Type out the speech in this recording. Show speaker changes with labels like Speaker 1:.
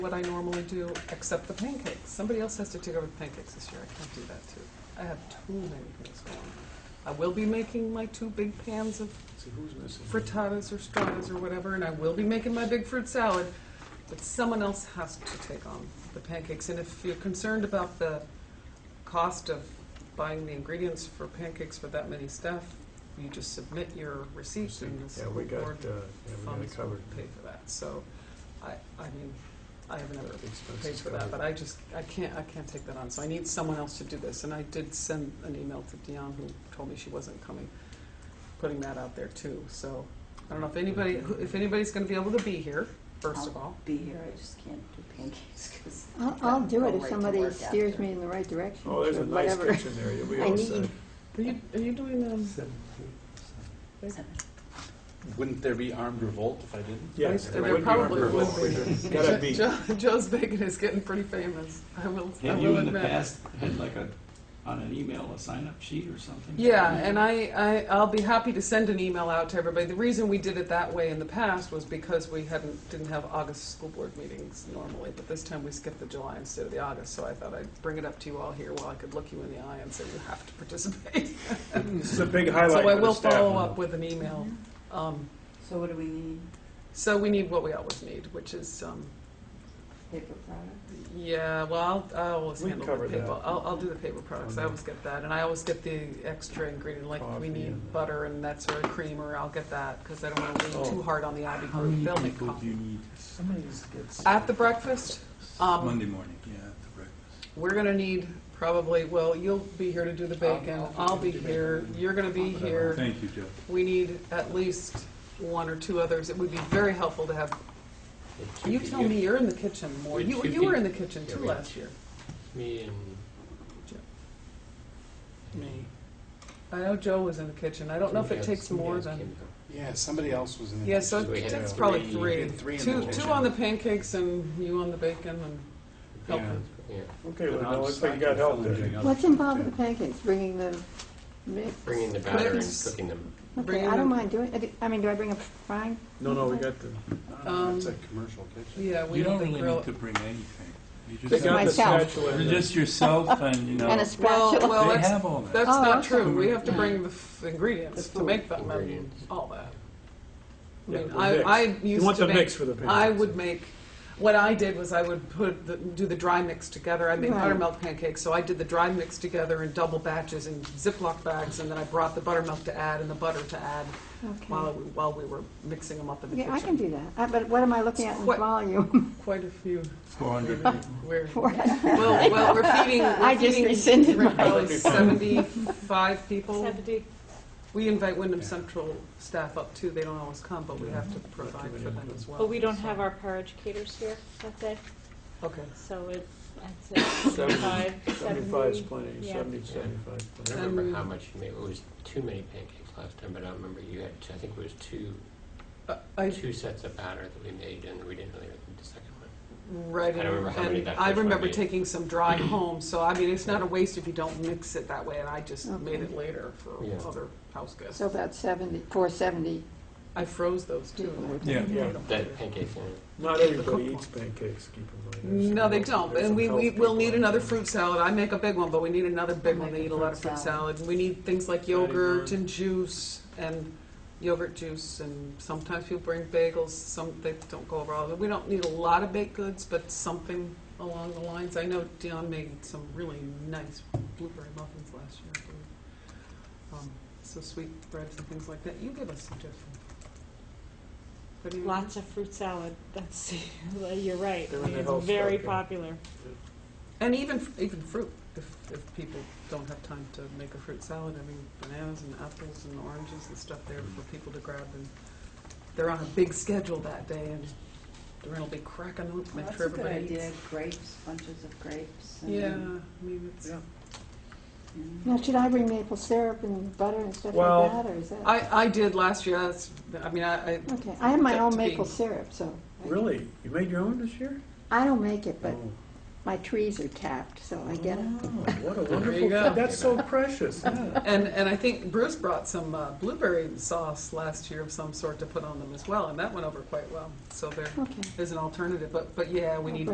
Speaker 1: what I normally do, except the pancakes. Somebody else has to take over the pancakes this year. I can't do that too. I have too many things going on. I will be making my two big pans of
Speaker 2: See, who's missing?
Speaker 1: frittatas or stratas or whatever, and I will be making my big fruit salad, but someone else has to take on the pancakes. And if you're concerned about the cost of buying the ingredients for pancakes for that many staff, you just submit your receipts and the
Speaker 2: Yeah, we
Speaker 1: school
Speaker 2: got, uh,
Speaker 1: board
Speaker 2: yeah, we got
Speaker 1: funds
Speaker 2: it
Speaker 1: will
Speaker 2: covered.
Speaker 1: pay for that. So, I, I mean, I haven't ever
Speaker 2: Expenses
Speaker 1: paid for that,
Speaker 2: covered.
Speaker 1: but I just, I can't, I can't take that on, so I need someone else to do this. And I did send an email to Dion, who told me she wasn't coming, putting that out there too, so. I don't know if anybody, who- if anybody's gonna be able to be here, first of all.
Speaker 3: be here, I just can't do pancakes because.
Speaker 4: I'll, I'll do it if somebody steers me in the right direction,
Speaker 2: Oh, there's
Speaker 4: or
Speaker 2: a nice
Speaker 4: whatever.
Speaker 2: kitchen there, you'll be
Speaker 4: I
Speaker 2: all
Speaker 4: need-
Speaker 2: set.
Speaker 1: Are you, are you doing, um,
Speaker 5: Wouldn't there be armed revolt if I didn't?
Speaker 2: Yeah,
Speaker 1: Nice,
Speaker 2: it
Speaker 1: there
Speaker 2: would be
Speaker 1: probably
Speaker 2: armed
Speaker 1: would
Speaker 2: revolt.
Speaker 5: be.
Speaker 2: Gotta be,
Speaker 1: Jo- Joe's Bacon is getting pretty famous, I will, I
Speaker 6: Have you
Speaker 1: will
Speaker 6: in the
Speaker 1: admit.
Speaker 6: past had like a, on an email, a sign-up sheet or something?
Speaker 1: Yeah, and I, I, I'll be happy to send an email out to everybody. The reason we did it that way in the past was because we hadn't, didn't have August school board meetings normally, but this time we skipped the July instead of the August, so I thought I'd bring it up to you all here while I could look you in the eye and say, you have to participate.
Speaker 2: this is a big
Speaker 1: So
Speaker 2: highlight
Speaker 1: I
Speaker 2: for the
Speaker 1: will
Speaker 2: staff.
Speaker 1: follow up with an email. Um,
Speaker 3: So what do we need?
Speaker 1: so we need what we always need, which is, um,
Speaker 3: Paper product?
Speaker 1: Yeah, well, I'll, I always
Speaker 2: We
Speaker 1: handle
Speaker 2: cover
Speaker 1: the
Speaker 2: that.
Speaker 1: paper. I'll, I'll do the paper products. I
Speaker 2: Okay.
Speaker 1: always get that, and I always get the extra ingredient, like
Speaker 2: Coffee
Speaker 1: we need
Speaker 2: and-
Speaker 1: butter and that sort of creamer. I'll get that because I don't want to lean
Speaker 2: Oh.
Speaker 1: too hard on the Abbey
Speaker 6: How
Speaker 1: group.
Speaker 6: many
Speaker 1: They'll make
Speaker 6: people do you
Speaker 1: coffee.
Speaker 6: need?
Speaker 2: Somebody just gets.
Speaker 1: At the breakfast, um,
Speaker 6: Monday morning, yeah, at the breakfast.
Speaker 1: we're gonna need probably. Well, you'll be here to do the bacon.
Speaker 2: I'll- I'll
Speaker 1: I'll
Speaker 2: do
Speaker 1: be
Speaker 2: the
Speaker 1: here.
Speaker 2: bacon.
Speaker 1: You're gonna be here.
Speaker 6: Thank you, Joe.
Speaker 1: We need at least one or two others. It would be very helpful to have. You tell me, you're in the kitchen more.
Speaker 5: we had
Speaker 1: You
Speaker 5: two
Speaker 1: you were
Speaker 5: peop-
Speaker 1: in the kitchen
Speaker 5: yeah,
Speaker 1: too
Speaker 5: we had
Speaker 1: last year.
Speaker 5: Me and
Speaker 1: me. I know Joe was in the kitchen. I don't know if it takes more than,
Speaker 7: Yeah, somebody else was in the
Speaker 1: yeah, so
Speaker 7: kitchen.
Speaker 1: it
Speaker 5: had
Speaker 1: takes
Speaker 7: three.
Speaker 1: probably
Speaker 7: We
Speaker 1: three.
Speaker 7: had three in
Speaker 1: Two,
Speaker 7: the
Speaker 1: two
Speaker 7: kitchen.
Speaker 1: on the pancakes and you on the bacon and helping.
Speaker 5: Yeah,
Speaker 2: Okay, well, now it looks like you got help there.
Speaker 4: What's involved with the pancakes, bringing the mix?
Speaker 5: bringing the batter and
Speaker 1: Clips.
Speaker 5: cooking them.
Speaker 4: Okay,
Speaker 1: bringing
Speaker 4: I
Speaker 1: the-
Speaker 4: don't mind doing, I do- I mean, do I bring a frying?
Speaker 2: No, no, we got the,
Speaker 1: Um,
Speaker 7: It's a commercial kitchen.
Speaker 1: Yeah, we
Speaker 6: You
Speaker 1: have
Speaker 6: don't
Speaker 1: the
Speaker 6: really need
Speaker 1: grill.
Speaker 6: to bring anything. You
Speaker 2: they
Speaker 6: just,
Speaker 2: got the
Speaker 4: myself.
Speaker 2: spatula. and the-
Speaker 6: just yourself and, you know,
Speaker 4: And a
Speaker 6: they
Speaker 1: Well,
Speaker 4: spatula?
Speaker 1: well, that's,
Speaker 6: have all that.
Speaker 1: that's
Speaker 4: Oh,
Speaker 1: not
Speaker 4: okay.
Speaker 1: true. We have to bring the f- ingredients
Speaker 3: The
Speaker 1: to make
Speaker 5: food.
Speaker 1: them and
Speaker 5: Ingredients.
Speaker 1: all that. I
Speaker 2: Yeah,
Speaker 1: mean,
Speaker 2: the
Speaker 1: I,
Speaker 2: mix.
Speaker 1: I used to make.
Speaker 2: You want the mix for the pancakes.
Speaker 1: I would make, what I did was I would put, the- do the dry mix together. I made
Speaker 4: Right.
Speaker 1: buttermilk pancakes, so I did the dry mix together in double batches in Ziploc bags, and then I brought the buttermilk to add and the butter to add while,
Speaker 4: Okay,
Speaker 1: we- while we were mixing them up in the
Speaker 4: yeah,
Speaker 1: kitchen.
Speaker 4: I can do that, I- but what am I looking at in
Speaker 1: What-
Speaker 4: volume?
Speaker 1: Quite a few.
Speaker 6: Four hundred
Speaker 1: We're,
Speaker 4: For
Speaker 1: well,
Speaker 4: it?
Speaker 1: well, we're feeding,
Speaker 4: I
Speaker 1: we're
Speaker 4: just
Speaker 1: feeding
Speaker 4: rescinded
Speaker 1: we're
Speaker 4: mine.
Speaker 1: probably seventy-five people.
Speaker 3: Seventy.
Speaker 1: We invite Wyndham Central staff up too. They don't always come, but we have to provide for them as well.
Speaker 8: But we don't
Speaker 1: so-
Speaker 8: have our paraeducators here that day,
Speaker 1: Okay.
Speaker 8: so it, I'd say seventy-five,
Speaker 2: Seventy-five's
Speaker 8: seventy.
Speaker 2: plenty,
Speaker 8: yeah.
Speaker 2: seventy, seventy-five
Speaker 5: I
Speaker 2: plenty.
Speaker 5: don't remember
Speaker 1: Um,
Speaker 5: how much you made. It was too many pancakes last time, but I remember you had, two- I think it was two,
Speaker 1: Uh, I,
Speaker 5: two sets of batter that we made and we didn't really make the second one.
Speaker 1: Right,
Speaker 5: I don't remember how many
Speaker 1: and
Speaker 5: that
Speaker 1: I
Speaker 5: first one
Speaker 1: remember
Speaker 5: made.
Speaker 1: taking some dry home, so I mean, it's not a waste if you don't mix it that way, and I just made it
Speaker 4: Okay.
Speaker 1: later for
Speaker 5: Yeah.
Speaker 1: other house guests.
Speaker 4: So about seventy, four seventy
Speaker 1: I froze those
Speaker 4: people
Speaker 1: too.
Speaker 4: would-
Speaker 6: Yeah.
Speaker 2: Yeah,
Speaker 5: That pancake thing.
Speaker 2: not everybody eats pancakes, keep in mind. There's
Speaker 1: No,
Speaker 2: some
Speaker 1: they
Speaker 2: health-
Speaker 1: don't,
Speaker 2: there's
Speaker 1: and
Speaker 2: some
Speaker 1: we,
Speaker 2: health
Speaker 1: we will
Speaker 2: people
Speaker 1: need
Speaker 2: out
Speaker 1: another
Speaker 2: there.
Speaker 1: fruit salad. I make a big one, but we need another big
Speaker 3: I
Speaker 1: one. They
Speaker 3: make a
Speaker 1: eat a lot
Speaker 3: fruit
Speaker 1: of fruit
Speaker 3: salad.
Speaker 1: salad. We need things like
Speaker 2: Patty
Speaker 1: yogurt
Speaker 2: lunch.
Speaker 1: and juice and yogurt juice, and sometimes people bring bagels, some, they don't go over all of it. We don't need a lot of baked goods, but something along the lines. I know Dion made some really nice blueberry muffins last year. I believe. Um, So sweetbreads and things like that. You give us suggestions. What do you-
Speaker 8: Lots of fruit salad, that's, you're right,
Speaker 2: They're in the health
Speaker 8: it's very
Speaker 2: club, yeah.
Speaker 8: popular.
Speaker 1: And even, even fruit, if, if people don't have time to make a fruit salad, I mean, bananas and apples and oranges and stuff there for people to grab, and they're on a big schedule that day, and Doreen will be cracking them up, make
Speaker 3: That's
Speaker 1: sure
Speaker 3: a good
Speaker 1: everybody eats.
Speaker 3: idea, grapes, bunches of grapes. and-
Speaker 1: Yeah, I mean, it's,
Speaker 2: Yeah.
Speaker 3: Mm.
Speaker 4: Now, should I bring maple syrup and butter and stuff
Speaker 2: Well,
Speaker 4: like that, or is that?
Speaker 1: I, I did last year, that's, I mean, I, I,
Speaker 4: Okay, I have my
Speaker 1: that
Speaker 4: own
Speaker 1: to be-
Speaker 4: maple syrup, so. I-
Speaker 2: Really? You made your own this year?
Speaker 4: I don't make it, but
Speaker 2: Oh.
Speaker 4: my trees are tapped, so I get it.
Speaker 2: Oh, What a
Speaker 1: There
Speaker 2: wonderful,
Speaker 1: you go.
Speaker 2: thing. that's so precious. yeah.
Speaker 1: and, and I think Bruce brought some uh, blueberry sauce last year of some sort to put on them as well, and that went over quite well, so there
Speaker 4: Okay.
Speaker 1: is an alternative, but, but yeah, we need